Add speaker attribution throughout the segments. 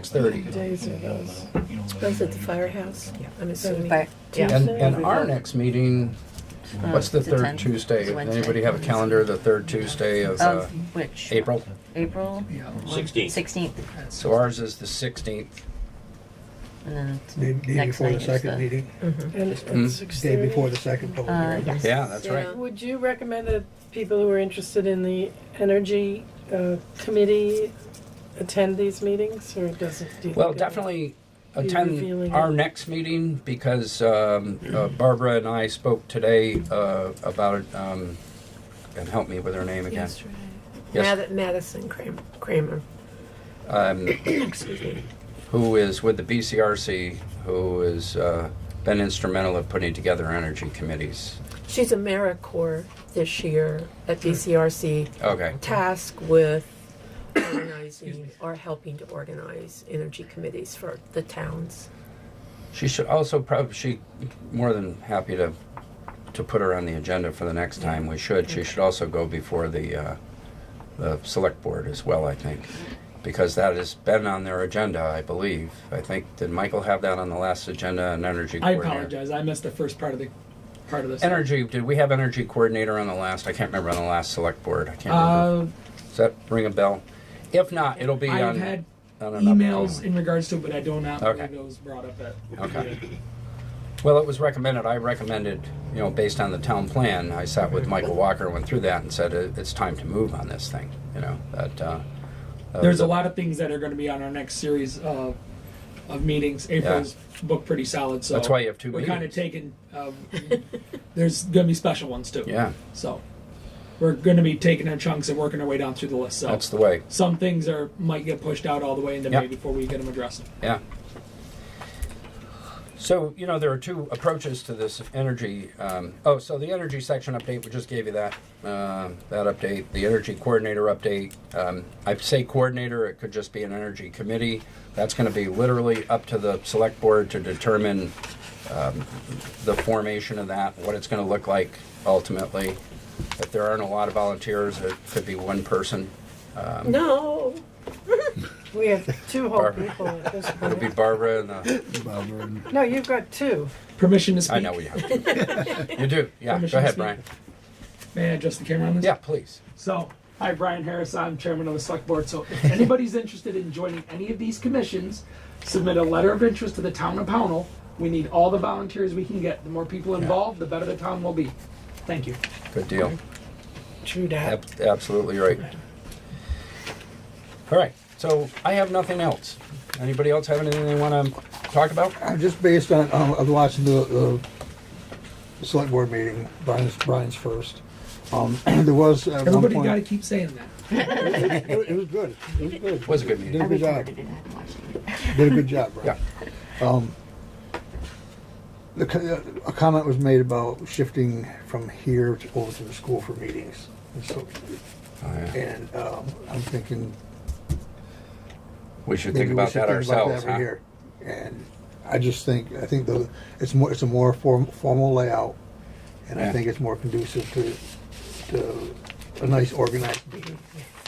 Speaker 1: 6:30.
Speaker 2: What days are those?
Speaker 3: Was it the firehouse?
Speaker 2: Yeah.
Speaker 3: I'm assuming.
Speaker 4: But-
Speaker 2: Yeah.
Speaker 1: And, and our next meeting, what's the
Speaker 4: It's Uh, the
Speaker 1: third
Speaker 4: 10th.
Speaker 1: Tuesday?
Speaker 4: It's
Speaker 1: Does
Speaker 4: Wednesday.
Speaker 1: Anybody have a calendar, of the third Tuesday of uh,
Speaker 4: Of which?
Speaker 1: April?
Speaker 4: April
Speaker 5: Sixteenth.
Speaker 4: 16th,
Speaker 1: So ours is the 16th.
Speaker 4: and then
Speaker 6: Day,
Speaker 4: t-
Speaker 6: day
Speaker 4: next
Speaker 6: before
Speaker 4: night
Speaker 6: the
Speaker 4: is
Speaker 6: second
Speaker 4: the.
Speaker 6: meeting,
Speaker 2: And it's at
Speaker 1: Hmm.
Speaker 2: 6:30?
Speaker 6: day before the second public
Speaker 4: Uh,
Speaker 6: hearing.
Speaker 4: yes.
Speaker 1: Yeah, that's
Speaker 3: Yeah.
Speaker 1: right.
Speaker 2: Would you recommend that people who are interested in the energy uh, committee attend these meetings, or does it? do you
Speaker 1: Well,
Speaker 2: think it'll-
Speaker 1: definitely
Speaker 2: Be
Speaker 1: attend
Speaker 2: revealing
Speaker 1: our
Speaker 2: it.
Speaker 1: next meeting because um, uh, Barbara and I spoke today uh, about, um, and help me with her name again.
Speaker 3: Yesterday.
Speaker 1: Yes.
Speaker 3: Mad- Madison Cram- Kramer,
Speaker 1: Um,
Speaker 3: excuse me.
Speaker 1: who is with the BCRC, who has uh, been instrumental in putting together energy committees.
Speaker 3: She's AmeriCorps this year at BCRC,
Speaker 1: Okay,
Speaker 3: tasked with organizing or helping to organize energy committees for the towns.
Speaker 1: she should also probably she more than happy to to put her on the agenda for the next time. We should. She should also go before the uh, the select board as well. I think because that has been on their agenda. I believe. I think did Michael have that on the last agenda? An energy.
Speaker 7: I
Speaker 1: coordinator?
Speaker 7: apologize. I missed the first part of the part of this.
Speaker 1: Energy. Did we have energy coordinator on the last? I can't remember on the last select board. I can't remember.
Speaker 7: Uh,
Speaker 1: Does that ring a bell? If not, it'll be
Speaker 7: I've
Speaker 1: on.
Speaker 7: had
Speaker 1: on an
Speaker 7: emails
Speaker 1: upcoming-
Speaker 7: in regards to it, but I do not
Speaker 1: Okay.
Speaker 7: believe it was brought up at.
Speaker 1: Okay. Well, it was recommended, I recommended, you know, based on the town plan, I sat with Michael Walker, went through that and said, "It- it's time to move on this thing, you know, that, uh. uh,
Speaker 7: There's a lot of things that are going to be on our next series of, of meetings. April's booked pretty solid, so
Speaker 1: That's why you have two
Speaker 7: We're kind of
Speaker 1: meetings.
Speaker 7: taking. Um, there's going to be special ones too.
Speaker 1: Yeah,
Speaker 7: So we're going to be taking our chunks and working our way down through the list. So
Speaker 1: that's the way,
Speaker 7: some things are might get pushed out all the way into
Speaker 1: Yep.
Speaker 7: May before we get them addressed.
Speaker 1: yeah. So, you know, there are two approaches to this energy, um, oh, so the energy section update, we just gave you that, um, that update, the energy coordinator update. Um, I say coordinator, it could just be an energy committee. That's gonna be literally up to the select board to determine um, the formation of that, what it's gonna look like ultimately. If there aren't a lot of volunteers, it could be one person.
Speaker 3: No,
Speaker 2: We have two whole
Speaker 1: Barbara.
Speaker 2: people at this
Speaker 1: It'll be
Speaker 2: point.
Speaker 1: Barbara and, uh,
Speaker 2: No, you've got two.
Speaker 7: Permission to speak.
Speaker 1: I know we have. You do, yeah, go
Speaker 7: Permission to
Speaker 1: ahead,
Speaker 7: speak?
Speaker 1: Brian.
Speaker 7: May I adjust the camera on this?
Speaker 1: Yeah, please.
Speaker 7: So, hi, Brian Harris. I'm chairman of the select board. So, if anybody's interested in joining any of these commissions, submit a letter of interest to the town of Pownell. We need all the volunteers we can get. The more people involved, the better the town will be. Thank you.
Speaker 1: Good deal.
Speaker 2: True that.
Speaker 1: Ab- Absolutely right. All right, so I have nothing else. Anybody else have anything they wanna talk about?
Speaker 6: Uh, Just based on, um, I've watched the, the select board meeting, Brian's, Brian's first. Um, there was at one
Speaker 7: Everybody got to
Speaker 6: point,
Speaker 7: keep saying that.
Speaker 6: it it was good, it was good.
Speaker 1: Was a good meeting.
Speaker 6: Did a
Speaker 4: I
Speaker 6: good job,
Speaker 4: recorded it, I haven't watched it.
Speaker 6: did a good job,
Speaker 1: Yeah.
Speaker 6: Brian. Um, The, co- uh, a comment was made about shifting from here to over to the school for meetings. And so-
Speaker 1: Oh, yeah.
Speaker 6: And, um, I'm thinking,
Speaker 1: We should
Speaker 6: Maybe
Speaker 1: think
Speaker 6: we
Speaker 1: about
Speaker 6: should
Speaker 1: that
Speaker 6: think about
Speaker 1: ourselves,
Speaker 6: that right
Speaker 1: huh?
Speaker 6: here. And I just think, I think the, it's more, it's a more form, formal layout, and I
Speaker 1: Yeah.
Speaker 6: think it's more conducive to, to a nice organized meeting.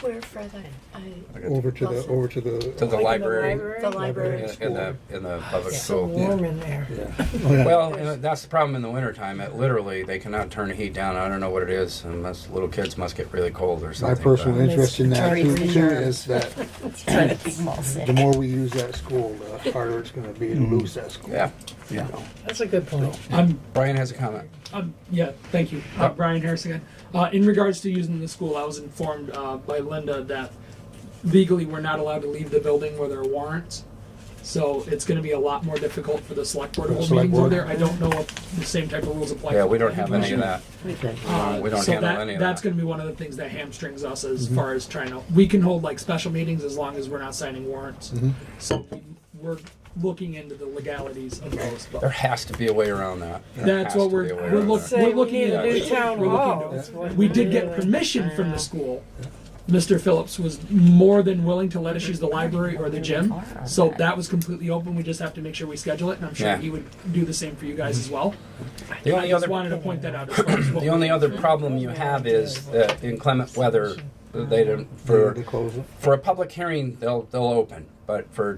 Speaker 3: we're further. I,
Speaker 6: Over to the,
Speaker 3: Awesome.
Speaker 6: over to
Speaker 1: To the
Speaker 6: the,
Speaker 1: library,
Speaker 3: the library.
Speaker 1: in the, in the public
Speaker 2: It's so
Speaker 1: school.
Speaker 2: warm in there.
Speaker 6: yeah. Oh, yeah.
Speaker 1: Well, you know, that's the problem in the wintertime. It literally, they cannot turn the heat down. I don't know what it is. Unless little kids must get really cold or
Speaker 6: My
Speaker 1: something.
Speaker 6: personal
Speaker 1: but-
Speaker 6: interest in that too,
Speaker 4: Sorry.
Speaker 6: too is that
Speaker 4: Trying to keep them all sick.
Speaker 6: the more we use that school, the harder it's gonna be to lose that school.
Speaker 1: Mm-hmm. Yeah.
Speaker 6: You know?
Speaker 2: That's a good point.
Speaker 7: I'm
Speaker 1: Brian has a comment.
Speaker 7: Um, yeah, thank you. Uh, Brian Harris again. Uh, in regards to using the school, I was informed uh, by Linda that legally we're not allowed to leave the building where there are warrants. So it's going to be a lot more difficult for the select board to hold
Speaker 6: Select
Speaker 7: meetings over there.
Speaker 6: board.
Speaker 7: I don't know if the same type of rules apply.
Speaker 1: Yeah,
Speaker 7: to
Speaker 1: we don't
Speaker 7: planning
Speaker 1: have any of that.
Speaker 7: commission.
Speaker 6: Okay.
Speaker 7: Uh,
Speaker 1: We don't
Speaker 7: so
Speaker 1: handle
Speaker 7: that,
Speaker 1: any of
Speaker 7: that's
Speaker 1: that.
Speaker 7: going to be one of the things that hamstrings us as far as trying to. We can hold like special meetings as long as we're not signing warrants. So we, we're looking into the legalities of those. But
Speaker 1: There has to be a way around that. There
Speaker 7: That's
Speaker 1: has to
Speaker 7: what
Speaker 1: be
Speaker 7: we're-
Speaker 1: a way
Speaker 7: we're
Speaker 1: around
Speaker 7: look-
Speaker 1: that.
Speaker 2: Say we
Speaker 7: looking
Speaker 2: need
Speaker 7: at
Speaker 2: a new
Speaker 7: it.
Speaker 2: town
Speaker 7: We're looking
Speaker 2: hall.
Speaker 7: at it.
Speaker 2: That's what
Speaker 7: We did get
Speaker 2: really-
Speaker 7: permission from the school. Mr. Phillips was more than willing to let us use the library or the gym, so that was completely open. We just have to make sure we schedule it, and I'm sure
Speaker 1: Yeah.
Speaker 7: he would do the same for you guys as well.
Speaker 1: The
Speaker 7: I
Speaker 1: only
Speaker 7: just
Speaker 1: other,
Speaker 7: wanted to point that out. as far as what
Speaker 1: the only other problem you have is that inclement weather, they don't,
Speaker 6: They had
Speaker 1: for,
Speaker 6: to close it.
Speaker 1: for a public hearing, they'll, they'll open. But for